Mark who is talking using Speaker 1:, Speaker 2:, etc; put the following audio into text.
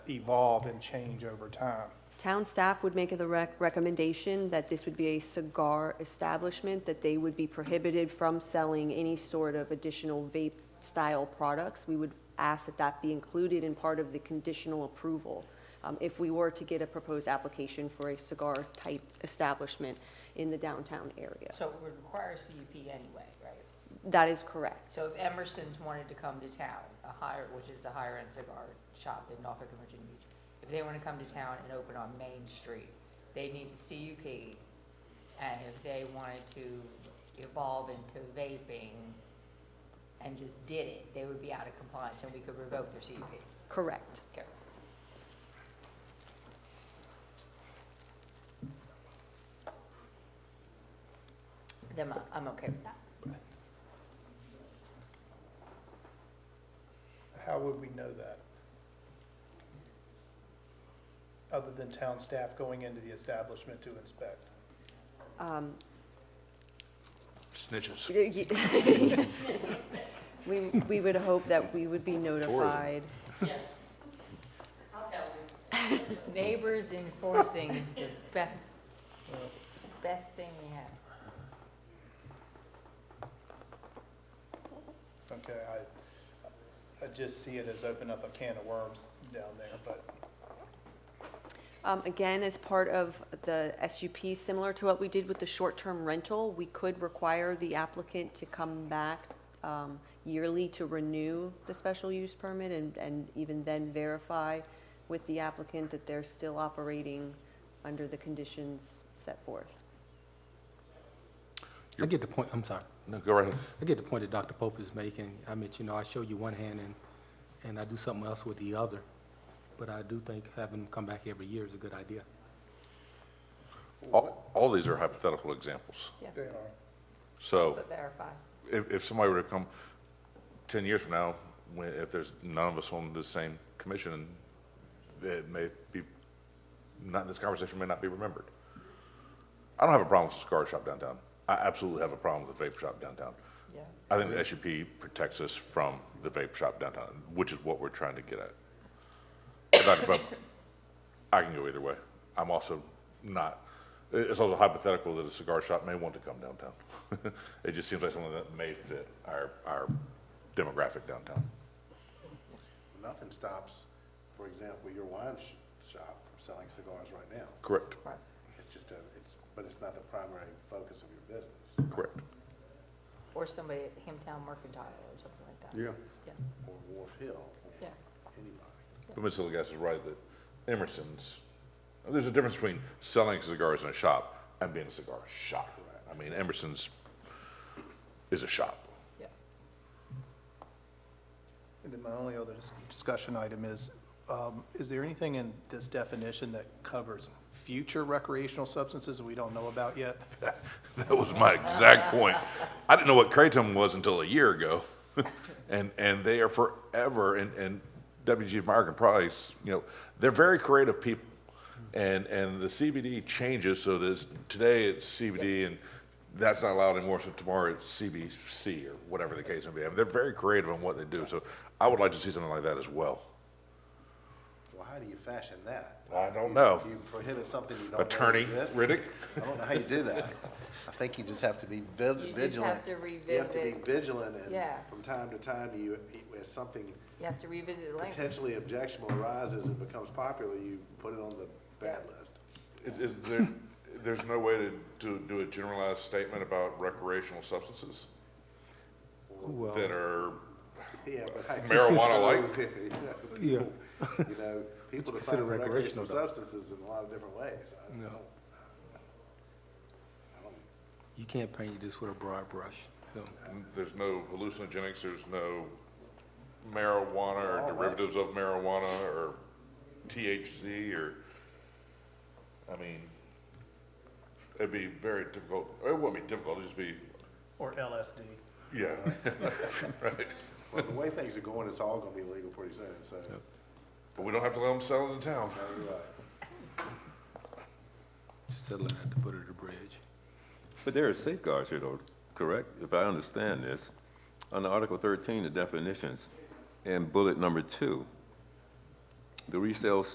Speaker 1: evolve and change over time.
Speaker 2: Town staff would make the rec- recommendation that this would be a cigar establishment, that they would be prohibited from selling any sort of additional vape-style products. We would ask that that be included in part of the conditional approval. um, If we were to get a proposed application for a cigar-type establishment in the downtown area.
Speaker 3: So it would require a CUP anyway, right?
Speaker 2: That is correct.
Speaker 3: So if Emerson's wanted to come to town, a higher, which is a higher-end cigar shop in Norfolk and Virginia Beach, if they want to come to town and open on Main Street, they need a CUP. And if they wanted to evolve into vaping and just did it, they would be out of compliance and we could revoke their E CUP.
Speaker 2: Correct.
Speaker 3: Okay. Then I'm- I'm okay with that.
Speaker 1: How would we know that? Other than town staff going into the establishment to inspect?
Speaker 2: Um,
Speaker 4: Snitches.
Speaker 2: We, we would hope that we would be notified.
Speaker 3: Neighbors enforcing is the best, best thing we have.
Speaker 1: Okay, I, I just see it as open up a can of worms down there, but
Speaker 2: Um, Again, as part of the SUP, similar to what we did with the short-term rental, we could require the applicant to come back um, yearly to renew the special use permit and, and even then verify with the applicant that they're still operating under the conditions set forth.
Speaker 5: I get the point, I'm sorry.
Speaker 4: No, go right ahead.
Speaker 5: I get the point that Dr. Pope is making. I mean, you know, I show you one hand and, and I do something else with the other. But I do think having them come back every year is a good idea.
Speaker 4: All, all these are hypothetical examples.
Speaker 3: Yeah,
Speaker 1: they are,
Speaker 4: So
Speaker 3: but verify.
Speaker 4: if, if somebody were to come 10 years from now, when, if there's none of us on the same commission, that may be, not, this conversation may not be remembered. I don't have a problem with the cigar shop downtown. I absolutely have a problem with the vape shop downtown.
Speaker 3: Yeah.
Speaker 4: I think the SUP protects us from the vape shop downtown, which is what we're trying to get at. But Dr. Pope, I can go either way. I'm also not, it- it's also hypothetical that a cigar shop may want to come downtown. It just seems like something that may fit our, our demographic downtown.
Speaker 6: Nothing stops, for example, your wine sh- shop from selling cigars right now.
Speaker 4: Correct,
Speaker 3: Right.
Speaker 6: It's just a, it's, but it's not the primary focus of your business.
Speaker 4: correct.
Speaker 3: Or somebody at Hamtown Mercantile or something like that. Yeah,
Speaker 6: Or Wharf Hill, or
Speaker 3: yeah.
Speaker 6: anybody.
Speaker 4: But Ms. Hilligas is right that Emerson's, there's a difference between selling cigars in a shop and being a cigar shop. I mean, Emerson's is a shop.
Speaker 3: Yeah.
Speaker 1: And then my only other dis- discussion item is, um, is there anything in this definition that covers future recreational substances that we don't know about yet?
Speaker 4: That was my exact point. I didn't know what kratom was until a year ago. And, and they are forever, and, and WG American Price, you know, they're very creative people. And, and the CBD changes, so there's, today it's CBD and that's not allowed anymore, so tomorrow it's CBC or whatever the case may be. I mean, they're very creative on what they do, so I would like to see something like that as well.
Speaker 6: Well, how do you fashion that?
Speaker 4: I don't
Speaker 6: You-
Speaker 4: know.
Speaker 6: You prohibit something you don't know
Speaker 4: Attorney
Speaker 6: exists?
Speaker 4: Riddick?
Speaker 6: I don't know how you do that. I think you just have to be vi-
Speaker 3: You just
Speaker 6: vigilant.
Speaker 3: have to
Speaker 6: You have to be
Speaker 3: revisit.
Speaker 6: vigilant
Speaker 3: Yeah.
Speaker 6: and from time to time, you, as something
Speaker 3: You have to revisit the language.
Speaker 6: potentially objectionable arises and becomes popular, you put it on the bad list.
Speaker 4: Is- Is there, there's no way to, to do a generalized statement about recreational substances
Speaker 5: Well,
Speaker 4: that are
Speaker 6: Yeah, but I.
Speaker 4: Marijuana-like?
Speaker 5: Yeah.
Speaker 6: uh, You know, people
Speaker 5: consider
Speaker 6: define recreational
Speaker 5: recreational, though.
Speaker 6: substances in a lot of different ways. I- I
Speaker 5: No.
Speaker 6: don't- I don't-
Speaker 5: you can't paint this with a broad brush. so.
Speaker 4: There's no hallucinogenics, there's no marijuana
Speaker 6: All
Speaker 4: or
Speaker 6: that's-
Speaker 4: derivatives of marijuana or THC or, I mean, it'd be very difficult, it wouldn't be difficult, it'd just be,
Speaker 1: Or LSD?
Speaker 4: yeah.
Speaker 6: Well, the way things are going, it's all gonna be legal pretty soon, so.
Speaker 4: But we don't have to let them sell it in town.
Speaker 6: no, you're right.
Speaker 5: Just settling at the foot of the bridge.
Speaker 7: But there are safeguards here, though, correct? If I understand this, under Article 13, the definitions, and bullet number two, the resale